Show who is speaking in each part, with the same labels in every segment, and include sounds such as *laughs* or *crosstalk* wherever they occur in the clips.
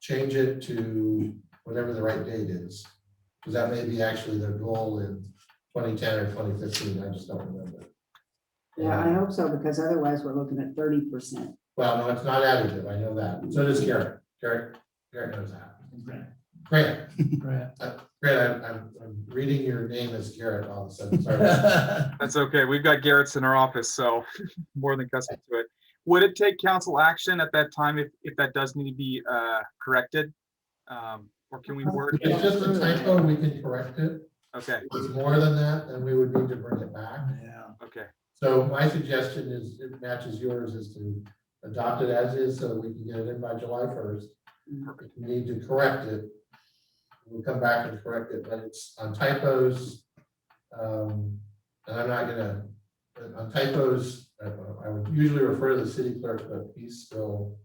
Speaker 1: change it to whatever the right date is. Because that may be actually their goal in twenty ten or twenty fifteen, I just don't remember.
Speaker 2: Yeah, I hope so, because otherwise we're looking at thirty percent.
Speaker 1: Well, no, it's not additive, I know that, so does Garrett, Garrett, Garrett knows that.
Speaker 3: Grant,
Speaker 1: Grant, Uh,
Speaker 3: Grant.
Speaker 1: Grant, I'm, I'm, I'm reading your name as Garrett all of a sudden, sorry.
Speaker 3: Well,
Speaker 4: That's okay. We've got Garrett's in our office, so *laughs* more than accustomed to it. Would it take council action at that time if, if that does need to be uh, corrected? Um, Or can we work?
Speaker 1: *laughs* It's just a typo, we can correct it,
Speaker 4: Okay,
Speaker 1: if it's more than that, then we would need to bring it back.
Speaker 4: okay.
Speaker 1: So my suggestion is, it matches yours, is to adopt it as is, so we can get it in by July first.
Speaker 5: Mm-hmm.
Speaker 1: If you need to correct it, we'll come back and correct it, but it's on typos. um, And I'm not gonna, but on typos, I- I would usually refer to the city clerk, but he's still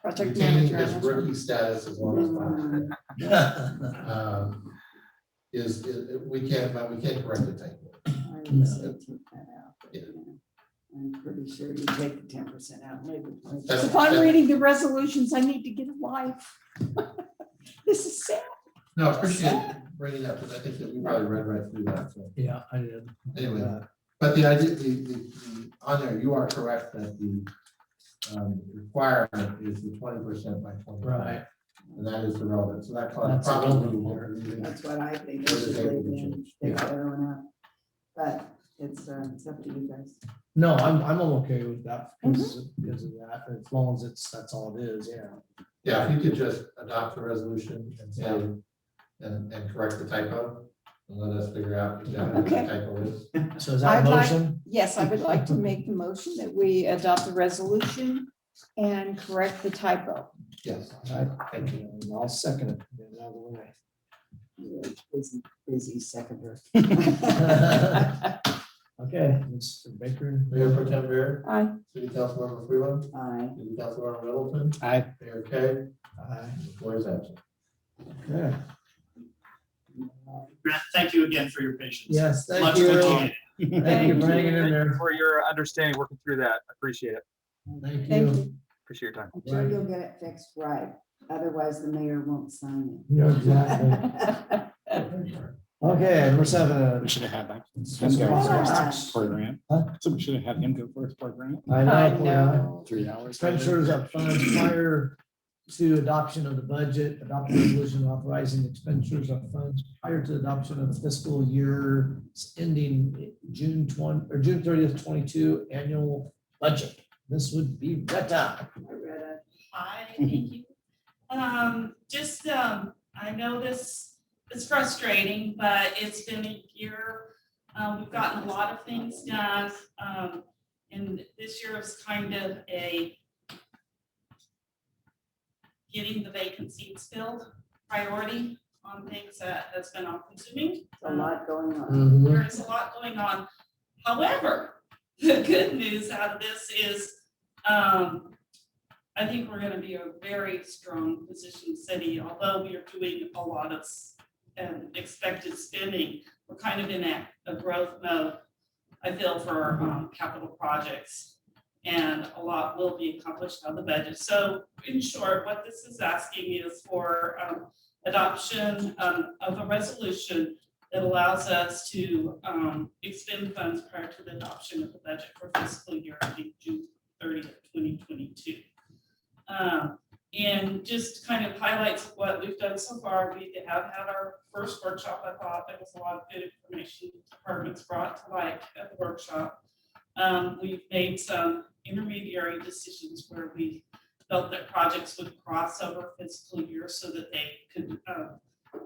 Speaker 5: Project
Speaker 1: retaining his
Speaker 5: manager.
Speaker 1: rookie status as long as
Speaker 2: Mm,
Speaker 1: possible.
Speaker 5: Mm-hmm.
Speaker 3: yeah.
Speaker 1: Um, Is, is- we can't, but we can't correct the typo.
Speaker 2: I *laughs* would say take that out. but, yeah. I'm pretty sure you take the ten percent out, maybe.
Speaker 1: That's-
Speaker 5: If I'm reading the resolutions, I need to get a life. *laughs* This is sad.
Speaker 1: No, I appreciate bringing that, because I think that we probably read right through that, so.
Speaker 3: Yeah, I did.
Speaker 1: Anyway, but the idea, the, the, the- on there, you are correct that the um, requirement is the twenty percent by twenty.
Speaker 3: Right.
Speaker 1: And that is the relevant, so that probably.
Speaker 3: That's the relevant one.
Speaker 1: probably-
Speaker 2: That's what I think. they should leave in, take the other one out. But it's, uh, it's up to you guys.
Speaker 3: No, I'm, I'm okay with that
Speaker 5: Mm-hmm.
Speaker 3: because, because of that, as long as it's, that's all it is, yeah.
Speaker 1: Yeah, if you could just adopt the resolution and say, and, and correct the typo, and let us figure out exactly what the
Speaker 5: Okay.
Speaker 1: typo is.
Speaker 3: So is that a
Speaker 5: I'd like-
Speaker 3: motion?
Speaker 5: Yes, I would like to make the motion that we adopt the resolution and correct the typo.
Speaker 1: Yes.
Speaker 3: I-
Speaker 1: Thank you.
Speaker 3: I'll second it. Get it. out of the way.
Speaker 2: You're a Busy, busy *laughs* seconder.
Speaker 3: Okay, Mr. Baker.
Speaker 1: *laughs* Mayor Pro Tem Bear,
Speaker 5: I,
Speaker 1: City Councilmember Freeland,
Speaker 2: Aye.
Speaker 1: City Councilmember Middleton,
Speaker 3: Aye.
Speaker 1: Mayor Kay,
Speaker 3: Aye.
Speaker 1: the floor is absent.
Speaker 3: Okay.
Speaker 6: Grant, thank you again for your patience.
Speaker 3: Yes,
Speaker 6: Much
Speaker 3: thank you.
Speaker 6: appreciated.
Speaker 3: Thank you for hanging in
Speaker 4: Thank you
Speaker 3: there.
Speaker 4: For your understanding, working through that. Appreciate it.
Speaker 3: Thank
Speaker 5: thank
Speaker 3: you.
Speaker 5: you.
Speaker 4: Appreciate your time.
Speaker 2: I'm sure you'll get it fixed right, otherwise the mayor won't sign
Speaker 3: Yeah, *laughs* exactly.
Speaker 2: it.
Speaker 3: Okay, number seven.
Speaker 7: We should have had that.
Speaker 3: Let's go.
Speaker 7: Program.
Speaker 3: Huh?
Speaker 7: So we should have had him go first program.
Speaker 3: I
Speaker 5: I
Speaker 3: know, yeah.
Speaker 5: know.
Speaker 7: Three hours.
Speaker 3: Expenditures of funds prior to adoption of the budget, adopt a resolution authorizing expenditures of funds prior to adoption of the fiscal year ending June twenty, or June thirtieth, twenty-two annual budget. This would be Retta.
Speaker 2: I read it.
Speaker 8: Hi, thank you. Um, just, um, I know this is frustrating, but it's been a year. Um, we've gotten a lot of things done, um, and this year is kind of a getting the vacancies filled priority on things that, that's been all consuming.
Speaker 2: It's a lot going on.
Speaker 3: Mm-hmm.
Speaker 8: There is a lot going on. However, *laughs* the good news out of this is, um, I think we're gonna be a very strong position city, although we are doing a lot of s- um, expected spending. We're kind of in a, a growth mode, I feel, for, um, capital projects. And a lot will be accomplished on the budget. So in short, what this is asking is for, um, adoption, um, of a resolution that allows us to um, expend funds prior to the adoption of the budget for fiscal year ending June thirtieth, twenty twenty-two. Um, And just kind of highlights what we've done so far. We have had our first workshop. I thought there was a lot of good information departments brought to light at the workshop. Um, We've made some intermediary decisions where we felt that projects would cross over fiscal year so that they could um,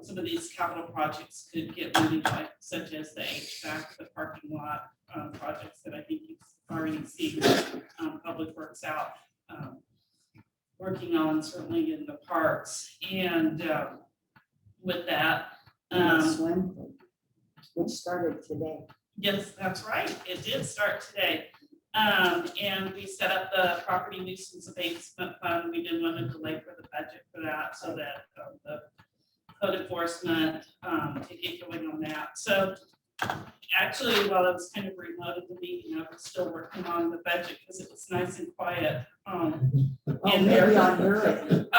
Speaker 8: some of these capital projects could get moving, like such as the HVAC, the parking lot, um, projects that I think you've already seen, um, Public Works out, um, working on certainly in the parks. And, um, with that,
Speaker 2: And the
Speaker 8: um,
Speaker 2: swim, pool, which started today.
Speaker 8: Yes, that's right. It did start today. Um, and we set up the property nuisance abatement fund. We didn't want to delay for the budget for that so that um, the code enforcement, um, to get going on that. So actually, while I was kind of remote at the meeting, I was still working on the budget because it was nice and quiet. Um,
Speaker 2: Oh,
Speaker 8: And there-
Speaker 2: maybe on your.